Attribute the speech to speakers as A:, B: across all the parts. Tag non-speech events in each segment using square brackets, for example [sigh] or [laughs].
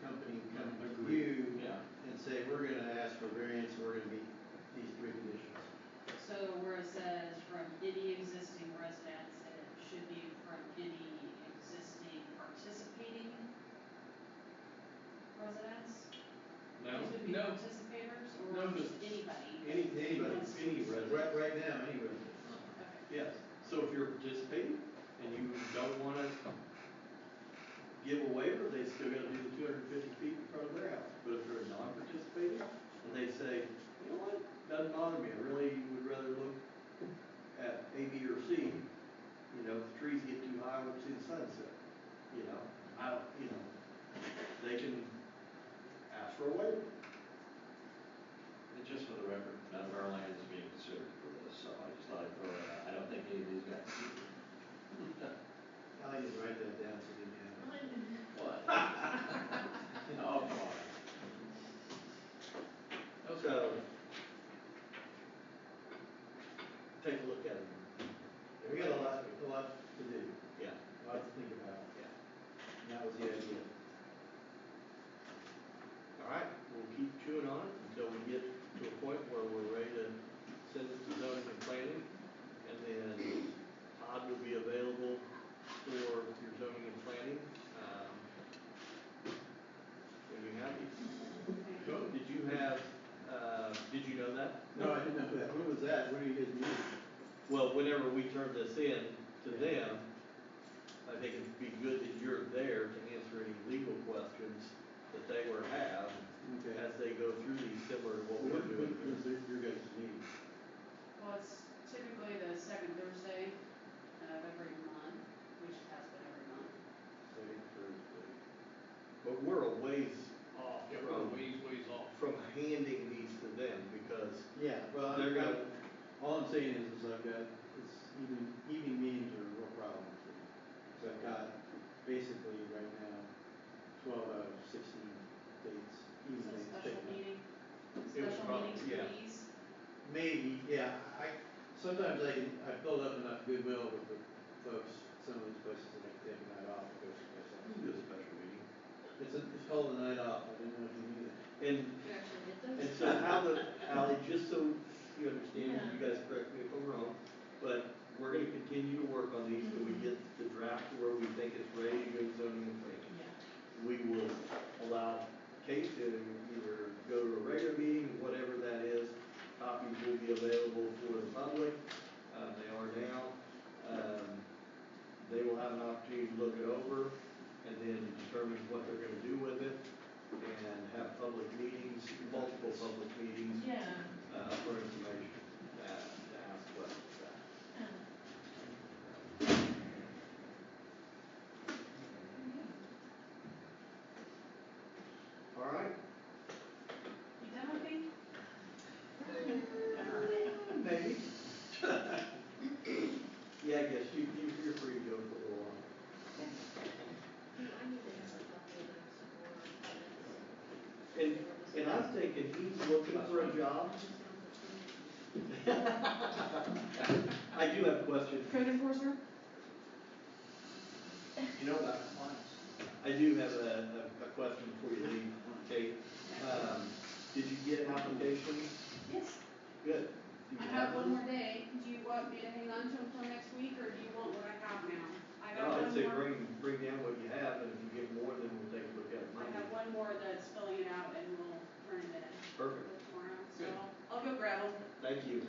A: company come to you
B: Yeah,
A: and say, we're gonna ask for variance, we're gonna meet these three conditions.
C: So where it says from any existing residence, and it should be from any existing participating residents?
B: no,
C: These would be
B: no,
C: participators
B: No,
C: or just
B: just-
C: anybody?
B: any, anybody,
A: Anybody.
B: any
A: Right,
B: resident.
A: right now, anyway.
C: Okay.
B: Yes, so if you're participating and you don't wanna give a waiver, they still gotta do the two hundred and fifty feet in front of their house. But if they're non-participating and they say, you know what, doesn't bother me, I really would rather look at A, B, or C. You know, if the trees get too high, I want to see the sunset, you know, I, don't- you know, they can ask for a waiver.
D: And just for the record, none of our land is being considered for this, so I just thought I'd throw it out. I don't think any of these guys.
A: I'll just write that down so you can have it.
D: What? Oh, come on.
A: So. Take a look at it. We got a lot, a lot to do,
D: Yeah,
A: a lot to think about.
D: Yeah.
A: And that was the idea.
B: All right, we'll keep chewing on it until we get to a point where we're ready to send it to zoning and planning. And then Todd will be available for your zoning and planning, um, when you have it.
C: Okay.
B: Cool. Did you have, uh, did you know that?
A: No, I didn't know that. When was that? When are you guys meeting?
B: Well, whenever we turn this in to them, I think it'd be good that you're there to answer any legal questions that they were have
A: Okay.
B: as they go through these similar to what
A: When,
B: we're
A: when,
B: doing. here.
A: when's your- your guys' meeting?
C: Well, it's typically the second Thursday of every month, which has been every month.
A: Second Thursday.
B: But we're a ways off
E: Yeah, we're
B: from,
E: ways, ways off.
B: from handing these to them because
A: Yeah, well, I've
B: they're
A: got,
B: gonna,
A: all I'm saying is, is I've got, it's evening, evening meetings are a real problem for me. So I've got basically right now twelve out of sixteen dates,
C: It's
A: evening
C: a
A: dates.
C: special
A: taken up.
C: meeting,
B: It was
C: special
B: prob-
C: meetings for
B: yeah.
C: these.
A: Maybe, yeah, I, sometimes I can, I build up enough goodwill with the folks, some of these places that I can take a night off, and go to myself.
B: we can do a special meeting.
A: It's, a- it's called a night off, I didn't know if you knew that.
B: And, and so how the, Ally, just so you understand, and you guys correct me if I'm wrong, but we're gonna continue to work on these till we get the draft to where we think it's ready to go to zoning and planning. we will allow Kate to either go to a regular meeting, whatever that is. Copies will be available for the public, uh, they are now. Um, they will have an opportunity to look it over and then determine what they're gonna do with it and have public meetings, multiple public meetings,
F: Yeah,
B: uh, for information, uh, to ask questions about. All right,
C: You done with me?
A: [laughs]
B: Maybe. [laughs] Yeah, I guess you, you, you're free to go for a little while. And, and I was thinking, he's looking for a job. [laughs] I do have a question.
C: Code enforcer?
B: You know about I do have a, a, a question before you leave, Kate. Um, did you get an application?
C: Yes.
B: Good. Do
C: I
B: you
C: have one more day. Do you want me to hang on to them till next week, or do you want what I have now? I got
B: No, I'd say
C: one more,
B: bring, bring down what you have, and if you get more, then we'll take a look at it.
C: I have one more that's filling it out and we'll turn it in
B: Perfect.
E: [laughs]
C: tomorrow, so
B: Good.
C: I'll, I'll go grab them.
B: Thank you.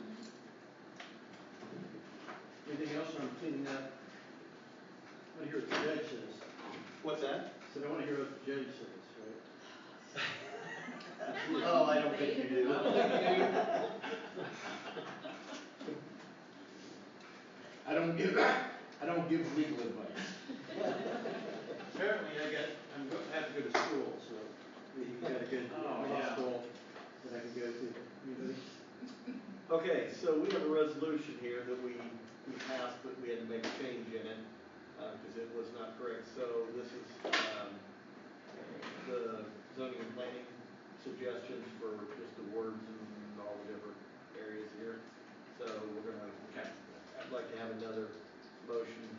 A: Anything else on cleaning up? I wanna hear what the judge says,
B: What's that?
A: said I wanna hear what the judge says, right?
C: [sighs]
A: [laughs]
B: Oh, I don't think you do.
C: [laughs]
D: I don't give, I don't give legal advice.
A: Apparently I got, I'm go, I have to go to school, so you got a good
D: Oh, yeah.
A: law school that I can go to. Anybody?
B: Okay, so we have a resolution here that we, we passed, but we had to make a change in it, uh, because it was not correct. So this is, um, the zoning and planning suggestions for just the words and all the different areas here. So we're gonna, I'd like to have another motion